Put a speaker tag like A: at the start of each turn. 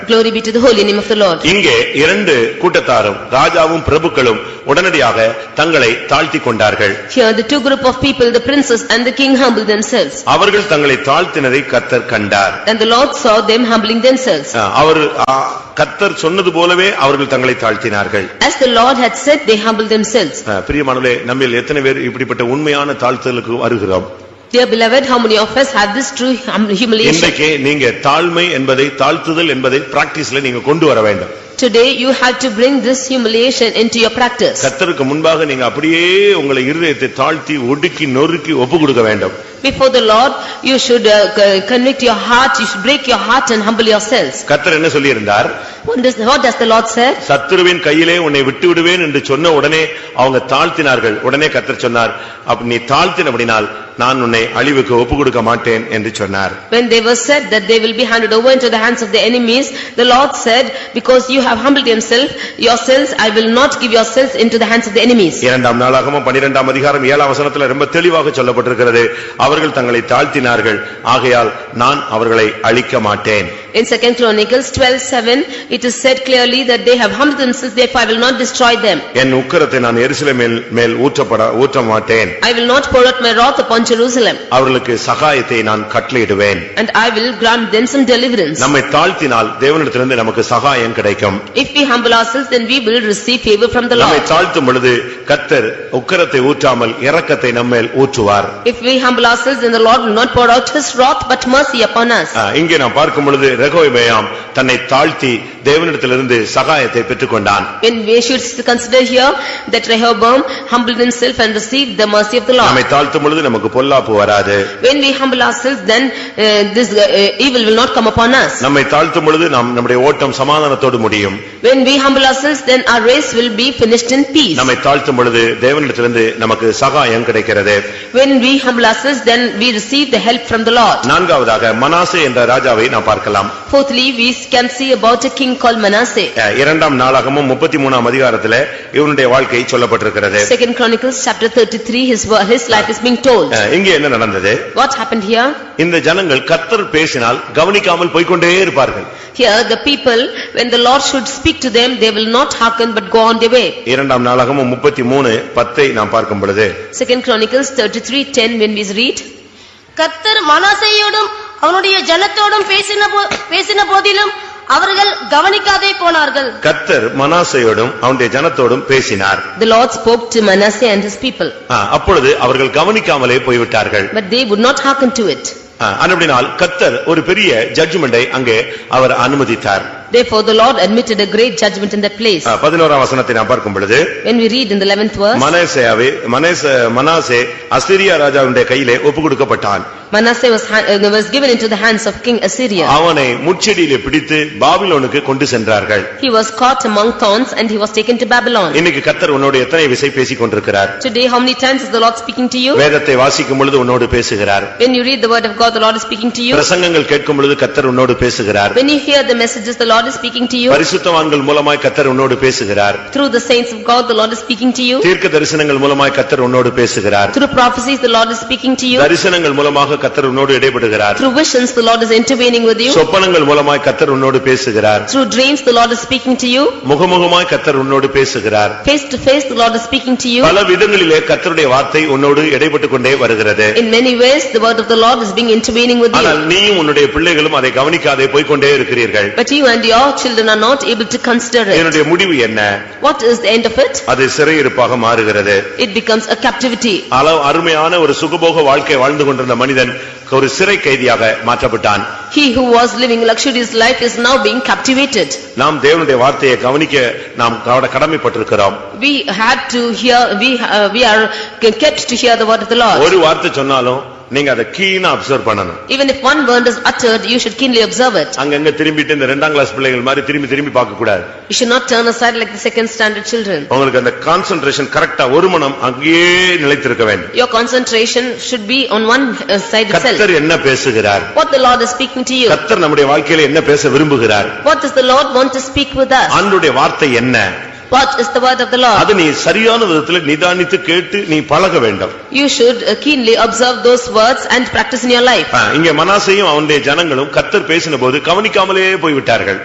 A: Glory be to the holy name of the Lord.
B: இங்கே இரண்டு கூட்டத்தாரும் ராஜாவும் பிரபுக்களும் உடனடியாக தங்களை தாழ்த்திக் கொண்டார்கள்
A: Here the two group of people, the princes and the king humbled themselves.
B: அவர்கள் தங்களை தாழ்த்தினதை கத்தர் கண்டார்
A: And the Lord saw them humbling themselves.
B: அஹ், அவர் அஹ், கத்தர் சொன்னது போலவே அவர்கள் தங்களை தாழ்த்தினார்கள்
A: As the Lord had said, they humbled themselves.
B: அஹ், பிரியமானவர்களே நம்மில் எத்தனை பேர் இப்படிப்பட்ட உண்மையான தாழ்த்துதலுக்கு வருகிறோம்
A: Dear beloved, how many of us have this true hum- humiliation?
B: இன்றைக்கு நீங்க தாழ்மை என்பதை தாழ்த்துதல் என்பதை பிராக்டிஸ்ல நீங்க கொண்டு வர வேண்டும்
A: Today you have to bring this humiliation into your practice.
B: கத்தருக்கு முன்பாக நீங்க அப்படியே உங்களை இருதயத்தை தாழ்த்தி ஒடுக்கி நொறுக்கி ஒப்பு கொடுக்க வேண்டும்
A: Before the Lord, you should uh, co- convict your heart, you should break your heart and humble yourselves.
B: கத்தர் என்ன சொல்லியிருந்தார்
A: What does, what does the Lord say?
B: சத்துருவின் கையிலே உன்னை விட்டு விடுவேன் என்று சொன்ன உடனே அவங்க தாழ்த்தினார்கள் உடனே கத்தர் சொன்னார் அப்ப நீ தாழ்த்தினபடினால் நான் உன்னை அழிவுக்கு ஒப்பு கொடுக்க மாட்டேன் என்று சொன்னார்
A: When they were said that they will be handed over into the hands of the enemies, the Lord said, "Because you have humbled yourself, yourselves, I will not give yourselves into the hands of the enemies."
B: இரண்டாம் நாளாகமும் பனிரெண்டாம் அதிகாரம் ஏழாம் வசனத்துல ரொம்ப தெளிவாக சொல்லப்பட்டிருக்கிறது அவர்கள் தங்களை தாழ்த்தினார்கள் ஆகையால் நான் அவர்களை அழிக்க மாட்டேன்
A: In Second Chronicles 12:7, it is said clearly that they have humbled themselves, therefore I will not destroy them.
B: என் உக்கிரத்தை நான் எருசலேமில் மேல் ஊற்றப்பட ஊற்ற மாட்டேன்
A: I will not pour out my wrath upon Jerusalem,
B: அவர்களுக்கு சகாயத்தை நான் கட்டளையிடுவேன்
A: and I will grant them some deliverance.
B: நம்மை தாழ்த்தினால் தேவனிடத்திலிருந்து நமக்கு சகாயம் கிடைக்கும்
A: If we humble ourselves, then we will receive favor from the
B: நம்மை
A: Lord.
B: தாழ்த்தும் பொழுது கத்தர் உக்கிரத்தை ஊற்றாமல் இரக்கத்தை நம்மேல் ஊற்றுவார்
A: If we humble ourselves, then the Lord will not pour out his wrath but mercy upon us.
B: ஆ, இங்கே நாம் பார்க்கும் பொழுது ரெகோபெயாம் தன்னை தாழ்த்தி தேவனிடத்திலிருந்து சகாயத்தை பெற்றுக்கொண்டான்
A: When we should consider here that Rehoboam humbled himself and received the mercy of the
B: நம்மை
A: Lord.
B: தாழ்த்தும் பொழுது நமக்கு பொல்லாப்பு வராது
A: When we humble ourselves, then uh, this uh, evil will not come upon us.
B: நம்மை தாழ்த்தும் பொழுது நாம் நம்முடைய ஓட்டம் சமாதானத்தோடு முடியும்
A: When we humble ourselves, then our race will be finished in peace.
B: நம்மை தாழ்த்தும் பொழுது தேவனிடத்திலிருந்து நமக்கு சகாயம் கிடைக்கிறது
A: When we humble ourselves, then we receive the help from the Lord.
B: நான்காவதாக மனாசே என்ற ராஜாவை நாம் பார்க்கலாம்
A: Fourthly, we can see about a king called Manasseh.
B: அஹ், இரண்டாம் நாளாகமும் முப்பத்தி மூணாம் அதிகாரத்திலே இவனுடைய வாழ்க்கை சொல்லப்பட்டிருக்கிறது
A: Second Chronicles, chapter thirty-three, his wo- his life is being told.
B: அஹ், இங்கே என்ன நடந்தது
A: What happened here?
B: இந்த ஜனங்கள் கத்தர் பேசினால் கவனிக்காமல் போய்க்கொண்டே இருப்பார்கள்
A: Here, the people, when the Lord should speak to them, they will not hearken but go on their way.
B: இரண்டாம் நாளாகமும் முப்பத்தி மூணு பத்தை நாம் பார்க்கும் பொழுது
A: Second Chronicles thirty-three ten, when we read,
C: கத்தர் மனாசையோடும் அவனுடைய ஜனத்தோடும் பேசின போ- பேசின போதிலும் அவர்கள் கவனிக்காதே போனார்கள்
B: கத்தர் மனாசையோடும் அவனுடைய ஜனத்தோடும் பேசினார்
A: the Lord spoke to Manasseh and his people,
B: அஹ், அப்பொழுது அவர்கள் கவனிக்காமலே போய்விட்டார்கள்
A: but they would not hearken to it.
B: அஹ், அனுப்பினால் கத்தர் ஒரு பெரிய ஜட்ஜ்மெண்டை அங்கே அவர் அனுமதித்தார்
A: Therefore, the Lord admitted a great judgment in that place.
B: அஹ், பதினோராம் வசனத்தை நாம் பார்க்கும் பொழுது
A: When we read in the eleventh verse,
B: மனேசேயாவே மனேச Manasseh Assyria ராஜாவுடைய கையிலே ஒப்பு கொடுக்கப்பட்டான்
A: Manasseh was ha- uh, was given into the hands of King Assyria.
B: அவனை முச்செடியிலே பிடித்து பாபிலோனுக்கு கொண்டு சென்றார்கள்
A: He was caught among thorns and he was taken to Babylon.
B: இன்னைக்கு கத்தர் உன்னோடு எத்தனை விசை பேசிக் கொண்டிருக்கிறார்
A: Today, how many times is the Lord speaking to you?
B: வேதத்தை வாசிக்கும் பொழுது உன்னோடு பேசுகிறார்
A: When you read the word of God, the Lord is speaking to you.
B: பிரசங்கங்கள் கேட்கும் பொழுது கத்தர் உன்னோடு பேசுகிறார்
A: When you hear the messages, the Lord is speaking to you.
B: பரிசுத்தவான்கள் மூலமாய் கத்தர் உன்னோடு பேசுகிறார்
A: Through the saints of God, the Lord is speaking to you.
B: தீர்க்க தரிசனங்கள் மூலமாய் கத்தர் உன்னோடு பேசுகிறார்
A: Through prophecies, the Lord is speaking to you.
B: தரிசனங்கள் மூலமாக கத்தர் உன்னோடு இடைபடுகிறார்
A: Through visions, the Lord is intervening with you.
B: சொப்பனங்கள் மூலமாய் கத்தர் உன்னோடு பேசுகிறார்
A: Through dreams, the Lord is speaking to you.
B: முகமுகமாய் கத்தர் உன்னோடு பேசுகிறார்
A: Face to face, the Lord is speaking to you.
B: பல விதங்களிலே கத்தருடைய வார்த்தை உன்னோடு இடைப்பட்டுக் கொண்டே வருகிறது
A: In many ways, the word of the Lord is being intervening with
B: ஆனால்
A: you.
B: நீயும் உன்னுடைய பிள்ளைகளும் அதை கவனிக்காதே போய்க்கொண்டே இருக்கிறீர்கள்
A: But you and your children are not able to consider it.
B: என்னுடைய முடிவு என்ன
A: What is the end of it?
B: அது சிறையிருப்பாக மாறுகிறது
A: It becomes a captivity.
B: அளவு அருமையான ஒரு சுகபோக வாழ்க்கை வாழ்ந்து கொண்டிருந்த மனிதன் ஒரு சிறை கைதியாக மாற்றப்பட்டான்
A: He who was living luxurious life is now being captivated.
B: நாம் தேவனுடைய வார்த்தையை கவனிக்க நாம் கவட- கடமைப்பட்டிருக்கிறோம்
A: We had to hear, we uh, we are kept to hear the word of the Lord.
B: ஒரு வார்த்தை சொன்னாலும் நீங்க அதை கீனா அப்சர்வ் பண்ணணும்
A: Even if one word is uttered, you should keenly observe it.
B: அங்கங்க திரும்பிட்டு இந்த இரண்டாம் கிளாஸ் பிள்ளைகள் மாதிரி திரும்பி திரும்பி பார்க்க கூடாது
A: You should not turn aside like the second standard children.
B: உங்களுக்கு அந்த கான்சென்ட்ரேஷன் கரெக்டா ஒரு மனம் அங்கேயே நிலைத்திருக்க வேண்டும்
A: Your concentration should be on one uh, side itself.
B: கத்தர் என்ன பேசுகிறார்
A: What the Lord is speaking to you.
B: கத்தர் நம்முடைய வாழ்க்கையில என்ன பேச விரும்புகிறார்
A: What does the Lord want to speak with us?
B: ஆண்டுடைய வார்த்தை என்ன
A: What is the word of the Lord?
B: அது நீ சரியான விதத்துல நிதானித்து கேட்டு நீ பழக வேண்டும்
A: You should uh, keenly observe those words and practice in your life.
B: ஆ, இங்கே மனாசையும் அவனுடைய ஜனங்களும் கத்தர் பேசின போது கவனிக்காமலே போய்விட்டார்கள்